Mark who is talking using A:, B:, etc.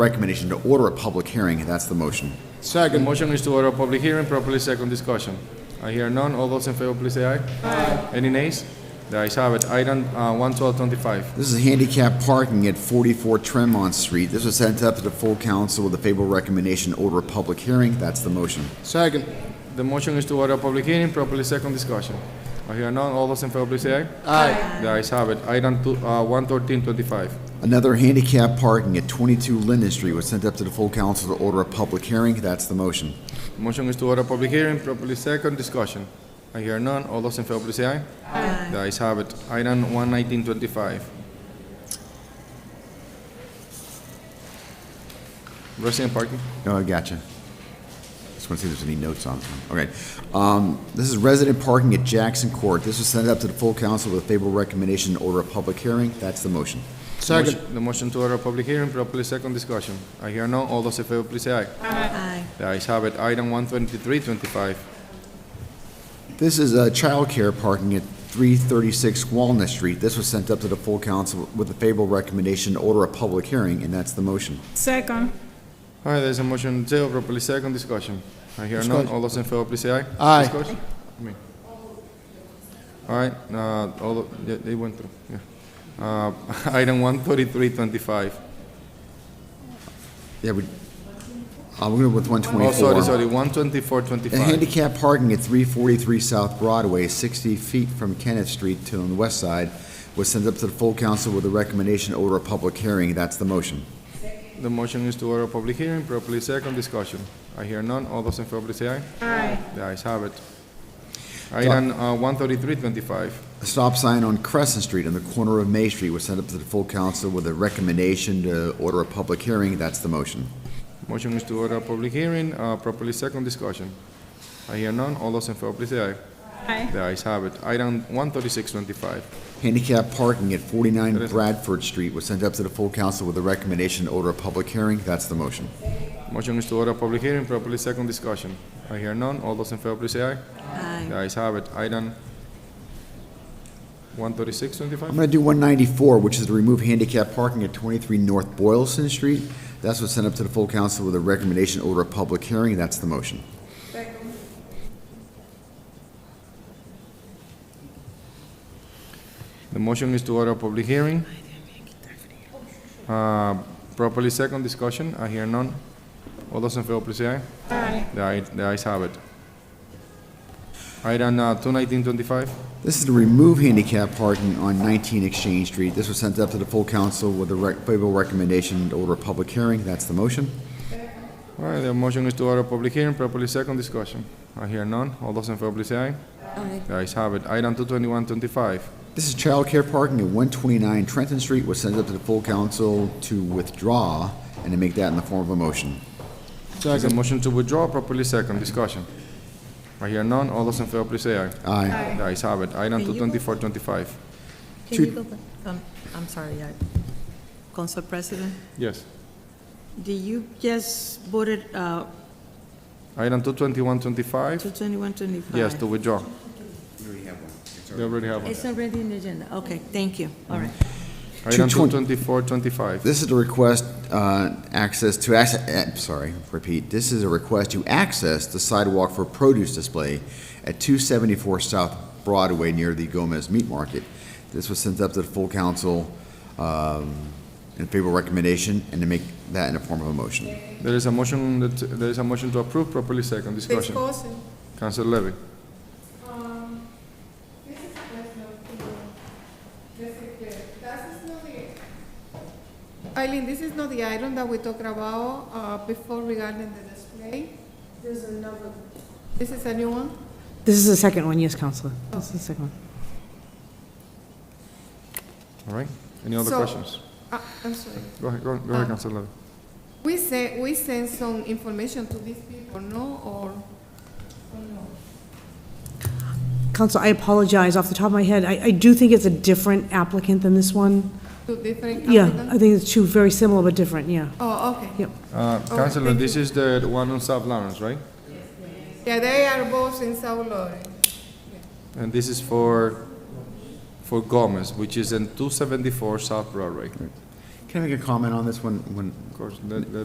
A: recommendation to order a public hearing. That's the motion.
B: The
C: Second.
B: motion is to order a public hearing, properly second discussion. I hear none. All those in favor, please say aye. Aye. Any nays? The ayes have it. Item uh, 11225.
A: This is handicap parking at 44 Tremont Street. This was sent up to the full council with a favorable recommendation to order a public hearing. That's the motion.
C: Second.
B: The motion is to order a public hearing, properly second discussion. I hear none. All those in favor, please say aye.
C: Aye.
B: The ayes have it. Item two- uh, 11325.
A: Another handicap parking at 22 Linden Street was sent up to the full council to order a public hearing. That's the motion.
B: Motion is to order a public hearing, properly second discussion. I hear none. All those in favor, please say aye. Aye. The ayes have it. Item 11925. Resident parking.
A: Oh, I gotcha. Just want to see if there's any notes on this one. Okay. Um, This is resident parking at Jackson Court. This was sent up to the full council with a favorable recommendation to order a public hearing. That's the motion.
C: Second.
B: Motion- The motion to order a public hearing, properly second discussion. I hear none. All those in favor, please say aye.
D: Aye.
B: The ayes have it. Item 12325.
A: This is uh, childcare parking at 336 Walnut Street. This was sent up to the full council with a favorable recommendation to order a public hearing, and that's the motion.
D: Second.
B: All right, there's a motion on the table, properly second discussion. I hear none.
C: Discussion.
B: All those in favor, please say aye.
C: Aye.
B: Discussion? I mean- All right, uh, all, of- they- they went through, yeah. Uh, Item 13325.
A: Yeah, we, I'm going with
B: Oh,
A: 124.
B: sorry, sorry,
A: A
B: 12425.
A: handicap parking at 343 South Broadway, 60 feet from Kenneth Street to the west side, was sent up to the full council with a recommendation to order a public hearing. That's the motion.
B: The motion is to order a public hearing, properly second discussion. I hear none. All those in favor, please say aye.
D: Aye.
B: The ayes have it. Item uh, 13325.
A: A stop sign on Crescent Street on the corner of May Street was sent up to the full council with a recommendation to order a public hearing. That's the motion.
B: Motion is to order a public hearing, uh, properly second discussion. I hear none. All those in favor, please say aye.
D: Aye.
B: The ayes have it. Item 13625.
A: Handicap parking at 49 Bradford Street was sent up to the full council with a recommendation to order a public hearing. That's the motion.
B: Motion is to order a public hearing, properly second discussion. I hear none. All those in favor, please say aye. The
D: Aye.
B: ayes have it. Item
A: I'm
B: 13625.
A: going to do 194, which is to remove handicap parking at 23 North Boylston Street. That's what's sent up to the full council with a recommendation to order a public hearing. That's the motion.
B: The motion is to order a public hearing. Uh, Properly second discussion. I hear none. All those in favor, please say aye.
D: Aye.
B: The ayes- The ayes have it. Item uh, 21925.
A: This is to remove handicap parking on 19 Exchange Street. This was sent up to the full council with a rec- favorable recommendation to order a public hearing. That's the motion.
B: All right, the motion is to order a public hearing, properly second discussion. I hear none. All those in favor, please say aye.
D: Aye.
B: The ayes have it. Item 22125.
A: This is childcare parking at 129 Trenton Street was sent up to the full council to withdraw and to make that in the form of a motion.
B: There's a motion to withdraw, properly second discussion. I hear none. All those in favor, please say aye.
A: Aye.
B: The ayes have it. Item
D: Can you-
B: 22425.
D: Can you go back? Um, I'm sorry, I- Council President,
B: Yes.
D: do you just voted uh,
B: Item 22125.
D: 22125?
B: Yes, to withdraw. We already have one.
D: It's already in the agenda. Okay, thank you. All right.
B: Item
A: 220.
B: 22425.
A: This is a request, uh, access to, ac- eh, sorry, repeat, this is a request to access the sidewalk for produce display at 274 South Broadway near the Gomez Meat Market. This was sent up to the full council um, in favorable recommendation and to make that in the form of a motion.
B: There is a motion, that there is a motion to approve, properly second discussion. Council Levy.
E: Eileen, this is not the item that we talked about uh, before regarding the display. There's another. This is a new one?
F: This is the second one, yes, Counselor. This is the second one.
B: All right. Any other
E: So-
B: questions?
E: Ah, I'm sorry.
B: Go ahead, go go ahead,
E: Uh,
B: Council Levy.
E: We sent, we sent some information to these people, no, or?
F: Counselor, I apologize. Off the top of my head, I, I do think it's a different applicant than this one.
E: To different
F: Yeah,
E: applicants?
F: I think it's two very similar but different, yeah.
E: Oh, okay.
F: Yep.
B: Uh,
E: right,
B: Councilor,
E: thank
B: this is the one on South Lawrence, right?
E: Yeah, they are both in South Lawrence.
B: And this is for, for Gomez, which is in 274 South Broadway.
G: Can I make a comment on this one? When
A: Of course, that- that-